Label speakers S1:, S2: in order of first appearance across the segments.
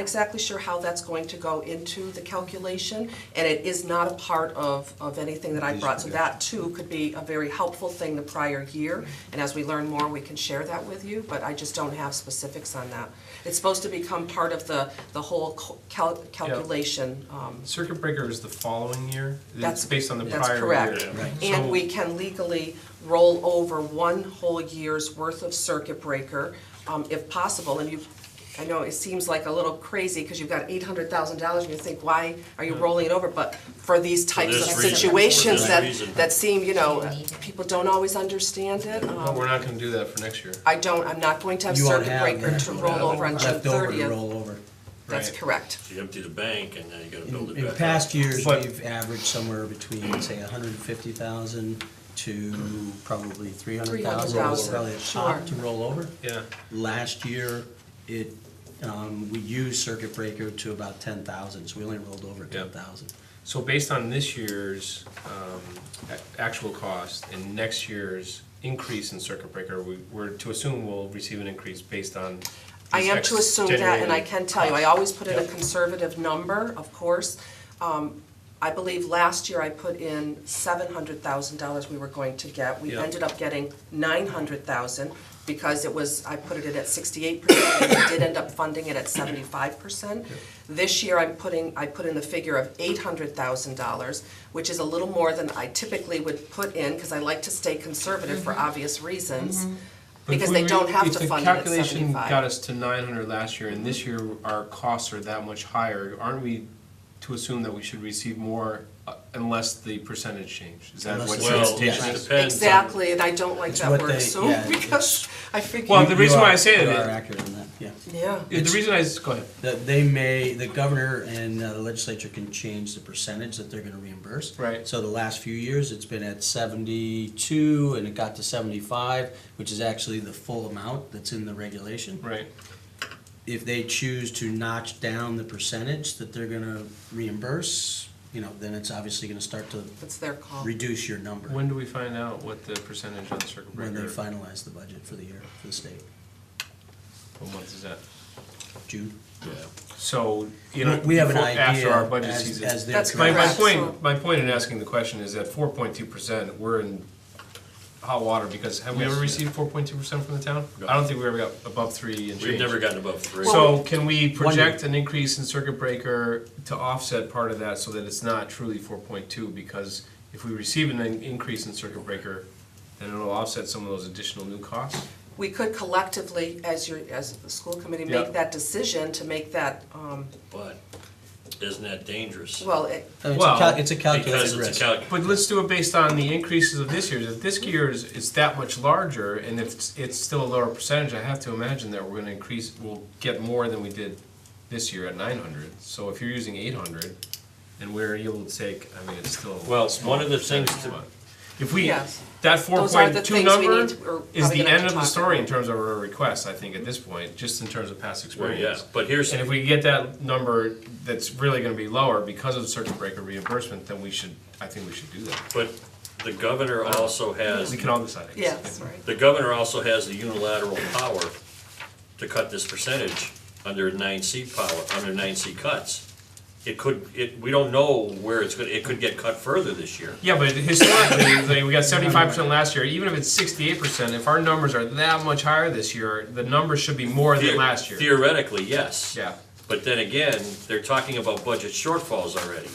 S1: exactly sure how that's going to go into the calculation, and it is not a part of, of anything that I brought, so that too could be a very helpful thing the prior year, and as we learn more, we can share that with you, but I just don't have specifics on that. It's supposed to become part of the, the whole co- cal- calculation, um,
S2: Circuit breaker is the following year?
S1: That's-
S2: It's based on the
S1: that's
S2: prior year?
S1: correct.
S2: So-
S1: and we can legally roll over one whole year's worth of circuit breaker, um, if possible, and you, I know it seems like a little crazy, because you've got eight hundred thousand dollars, and you think, why are you rolling it over, but for these types of
S3: this reason.
S1: situations
S3: For this
S1: that,
S3: reason.
S1: that seem, you know, people don't always understand it,
S2: But
S1: um,
S2: we're not gonna do that for next year.
S1: I don't, I'm not going to have
S4: You won't
S1: circuit
S4: have
S1: breaker
S4: that.
S1: to roll over on June
S4: Left over to
S1: thirtieth,
S4: roll over.
S1: that's
S2: Right.
S1: correct.
S3: You empty the bank and then you gotta build
S4: In,
S3: it
S4: in
S3: back up.
S4: past years,
S2: But-
S4: we've averaged somewhere between, say, hundred and fifty thousand to probably three hundred thousand.
S1: 300,000,
S4: Probably a
S1: sure.
S4: top to roll over.
S2: Yeah,
S4: Last year, it, um, we used circuit breaker to about ten thousand, so we only rolled over
S2: Yeah.
S4: ten thousand.
S2: so based on this year's um, a- actual cost and next year's increase in circuit breaker, we- we're to assume we'll receive an increase based on
S1: I
S2: these
S1: am to
S2: ex-
S1: assume that, and I
S2: generated
S1: can tell you, I
S2: costs.
S1: always put in a
S2: Yep.
S1: conservative number, of course. Um, I believe last year I put in seven hundred thousand dollars we were going to get. We
S2: Yep.
S1: ended up getting nine hundred thousand because it was, I put it at sixty-eight percent, and we did end up funding it at seventy-five percent. This year I'm putting, I put in a figure of eight hundred thousand dollars, which is a little more than I typically would put in, because I like to stay conservative
S2: Mm-hmm.
S1: for obvious reasons.
S2: But if
S1: Because
S2: we
S1: they
S2: were-
S1: don't have to fund it at
S2: If the calculation
S1: 75.
S2: got us to nine hundred last year and this year our costs are that much higher, aren't we to assume that we should receive more uh, unless the percentage change? Is that
S4: Unless
S2: what
S4: the
S2: your
S3: Well, it
S4: Yes.
S2: expectation is?
S3: depends. on-
S1: Exactly, and I don't like
S4: um, It's
S1: that
S4: what
S1: word
S4: they-
S1: assume,
S4: yeah,
S1: because I figure.
S2: Well, the
S4: You
S2: reason why
S4: are-
S2: I say
S4: you
S2: that
S4: are
S2: is-
S4: accurate on that, yeah.
S1: Yeah,
S2: The reason I, s- go ahead.
S4: That they may, the governor and uh, the legislature can change the percentage that they're gonna reimburse.
S2: Right.
S4: So the last few years, it's been at seventy-two, and it got to seventy-five, which is actually the full amount that's in the regulation.
S2: Right.
S4: If they choose to notch down the percentage that they're gonna reimburse, you know, then it's obviously gonna start to
S1: that's their call.
S4: reduce your number
S2: When do we find out what the percentage on the circuit breaker?
S4: when they finalize the budget for the year, for the state,
S2: What month is that?
S4: June.
S2: So, you know,
S4: We have an
S2: before- after
S4: idea
S2: our budget
S4: as-
S2: season.
S4: as they're
S1: That's
S2: My,
S4: correct.
S2: my
S1: Correct, so-
S2: point, my point in asking the question is that four point two percent, we're in hot water, because have we
S4: Yes.
S2: ever received four point two percent from the town?
S3: No.
S2: I don't think we ever got above three and
S3: We've
S2: change.
S3: never gotten above three.
S2: So can we project an increase in circuit breaker to offset part of that so that it's not truly four point two? Because if we receive an in- increase in circuit breaker, then it'll offset some of those additional new costs?
S1: We could collectively, as your, as the school committee,
S2: Yeah.
S1: make that decision to make that, um,
S3: But isn't that dangerous?
S1: well, it,
S4: I mean, It's a
S2: Well,
S4: cal- it's a calculated
S3: Because
S4: risk.
S3: it's a calc,
S2: But let's do it based on the increases of this year's. If this year's is that much larger, and if it's- it's still a lower percentage, I have to imagine that we're gonna increase, we'll get more than we did this year at nine hundred. So if you're using eight hundred, and we're able to take, I mean, it's still.
S3: Well,
S2: a small
S3: one of the things
S2: percentage,
S3: to-
S2: but If we,
S1: Yes.
S2: that four
S1: Those are the
S2: point two
S1: things we
S2: number
S1: need to- we're
S2: is
S1: probably
S2: the
S1: gonna have
S2: end
S1: to
S2: of the
S1: talk
S2: story in
S1: about.
S2: terms of our requests, I think, at this point, just in terms of past
S3: well,
S2: experience.
S3: yeah, but here's,
S2: And if we get that number that's really gonna be lower because of the circuit breaker reimbursement, then we should, I think we should do that.
S3: but the governor also has,
S2: We can all decide. I
S1: yeah,
S2: guess.
S1: sorry.
S3: the governor also has the unilateral power to cut this percentage under nine C power, under nine C cuts. It could, it, we don't know where it's gonna, it could get cut further this year.
S2: Yeah, but historically, like, we got seventy-five percent last year, even if it's sixty-eight percent, if our numbers are that much higher this year, the numbers should be more than last year.
S3: Theoretically, yes.
S2: Yeah.
S3: But then again, they're talking about budget shortfalls already.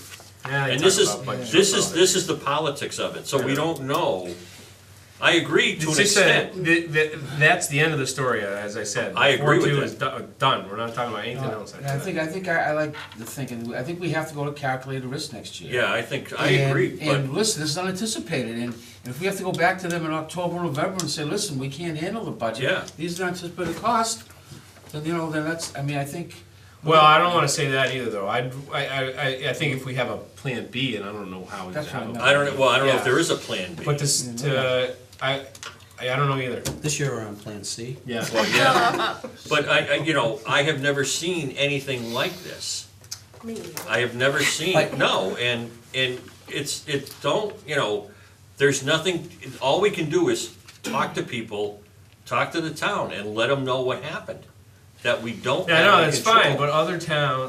S2: Yeah, they
S3: And
S2: talk
S3: this is,
S2: about budget
S3: this is,
S2: shortfalls.
S3: this is the politics of it, so we don't know. I agree to
S2: It's
S3: an
S2: just that,
S3: extent.
S2: th- th- that's the end of the story, as I said.
S3: I agree with
S2: 4-2
S3: that.
S2: is do- Done, we're not talking about anything else
S5: And I
S2: after
S5: think,
S2: that.
S5: I think I, I like the thinking, I think we have to go to calculated risk next year.
S3: Yeah, I think, I
S5: And-
S3: agree, but
S5: And listen, this is unanticipated, and and if we have to go back to them in October, November and say, listen, we can't handle the budget.
S3: Yeah.
S5: These are anticipated costs, then, you know, then that's, I mean, I think.
S2: Well, I don't wanna say that either, though, I'd, I, I, I- I think if we have a plan B, and I don't know how we would
S5: That's
S2: have
S5: what
S2: it.
S5: I
S3: I don't, know- well, I don't know if
S2: Yeah.
S3: there is a plan B.
S2: But this, to, I, I I don't know either,
S4: This year we're on Plan C.
S2: yeah.
S3: Well, yeah. But I, I, you know, I have never seen anything like this.
S1: Me.
S3: I have never seen, no, and, and it's, it don't, you know, there's nothing, all we can do is talk to people, talk to the town, and let them know what happened. that we don't
S2: Yeah,
S3: have
S2: no,
S3: any
S2: it's
S3: control.
S2: fine, but other towns,